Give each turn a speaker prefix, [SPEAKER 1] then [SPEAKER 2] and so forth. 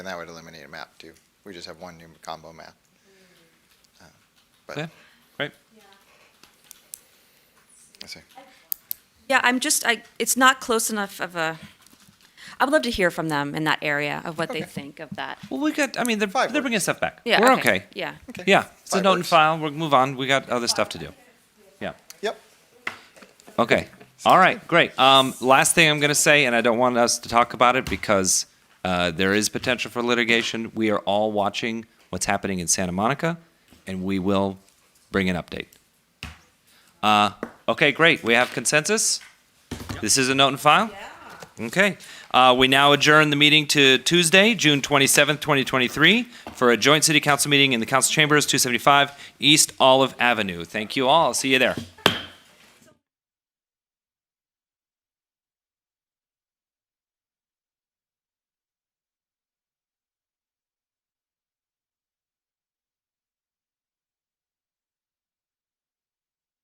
[SPEAKER 1] And that would eliminate a map too. We just have one new combo map. Uh, But,
[SPEAKER 2] Okay, great.
[SPEAKER 1] let's see.
[SPEAKER 3] Yeah, I'm just, I, it's not close enough of a, I would love to hear from them in that area of what they think of that.
[SPEAKER 2] Well, we got, I mean, they're,
[SPEAKER 1] Five
[SPEAKER 2] they're
[SPEAKER 1] works.
[SPEAKER 2] bringing stuff back.
[SPEAKER 3] Yeah.
[SPEAKER 2] We're okay.
[SPEAKER 3] Yeah.
[SPEAKER 2] Yeah, it's a
[SPEAKER 1] Five
[SPEAKER 2] note and
[SPEAKER 1] works.
[SPEAKER 2] file. We'll move on. We got other stuff to do. Yeah.
[SPEAKER 1] Yep,
[SPEAKER 2] Okay. All right. Great. Um, last thing I'm going to say, and I don't want us to talk about it because uh, there is potential for litigation. We are all watching what's happening in Santa Monica, and we will bring an update. Uh, okay. Great. We have consensus. This is a note and file. Okay. Uh, we now adjourn the meeting to Tuesday, June 27th, 2023, for a joint city council meeting in the council chambers, 275 East Olive Avenue. Thank you all. I'll see you there.